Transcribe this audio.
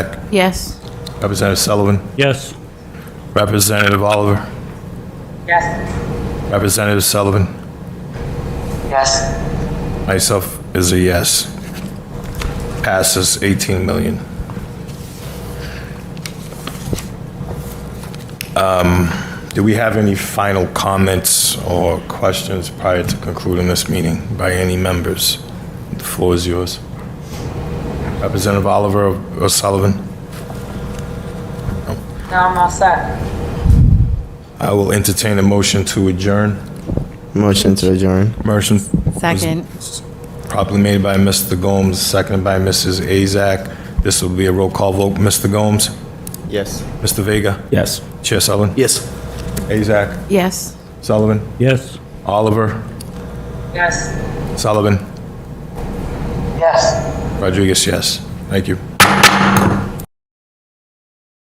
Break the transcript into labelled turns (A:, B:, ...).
A: Yes.
B: Representative Sullivan.
C: Yes.
B: Representative Oliver.
D: Yes.
B: Representative Sullivan.
D: Yes.
B: Myself is a yes. Passes 18 million. Um, Do we have any final comments or questions prior to concluding this meeting by any members? The floor is yours. Representative Oliver or Sullivan?
D: Now I'm all set.
B: I will entertain a motion to adjourn.
E: Motion to adjourn.
B: Motion
A: Second.
B: Properly made by Mr. Gomes, seconded by Mrs. Azak. This will be a roll call vote. Mr. Gomes?
E: Yes.
B: Mr. Vega?
C: Yes.
B: Chair Sullivan?
E: Yes.
B: Azak?
A: Yes.
B: Sullivan?
C: Yes.
B: Oliver?
D: Yes.
B: Sullivan?
D: Yes.
B: Rodriguez, yes. Thank you.